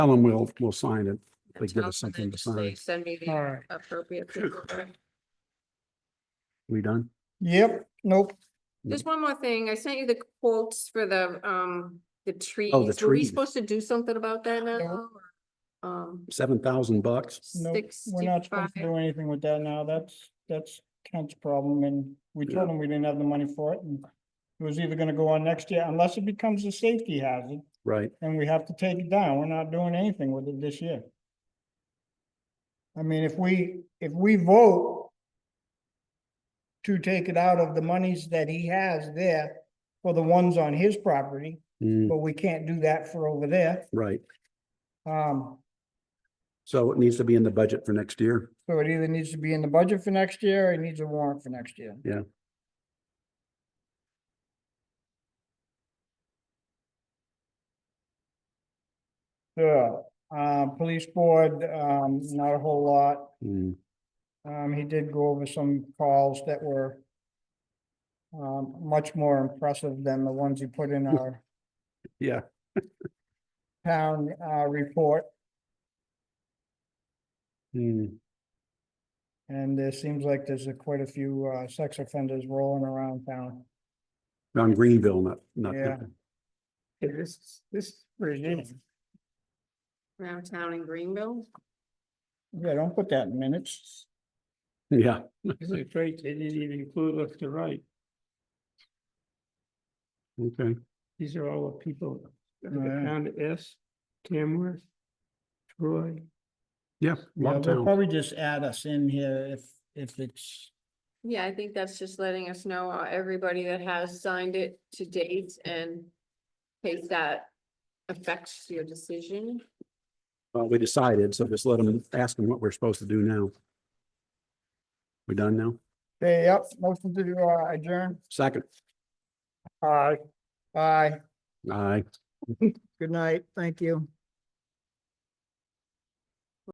Tell them we'll, we'll sign it. and give tell us them something and to just say, sign. Send me All the right. appropriate. paperwork." We done? Yep, nope. Just one more thing. I sent you the quotes for the, um, the trees. Were we Oh, trees. supposed to do something about that now? No. or, Um, Seven thousand bucks? Nope, we're not supposed to sixty-five. do anything with that now. That's, that's Kent's problem and we told him we didn't have the money for it and it was either gonna go on next year unless it becomes a safety hazard Right. and we have to take it down. We're not doing anything with it this year. I mean, if we, if we vote to take it out of the monies that he has there for the ones on his property, Mm, but we can't do that for over there. right. Um, So it needs to be in the budget for next year. So it either needs to be in the budget for next year or it needs a warrant for next year. Yeah. So, uh, police board, um, not a whole lot. Mm, Um, he did go over some calls that were um, much more impressive than the ones he put in our yeah, town, uh, report. Mm, And there seems like there's a quite a few, uh, sex offenders rolling around town. on Greenville, not, not. Yeah. This, this regime. around town in Greenville? Yeah, don't put that in minutes. Yeah, This is great, they didn't even include left to right. okay. These are all the people that Oh, yeah. are down to S, Tamworth, Troy. Yeah, Yeah, lot they'll town. probably just add us in here if, if it's, Yeah, I think that's just letting us know, uh, everybody that has signed it to date and case that affects your decision. Well, we decided, so just let them, ask them what we're supposed to do now. We done now? hey, yep, motion to uh, adjourn. Second, Aye. Aye, aye. good night, thank you.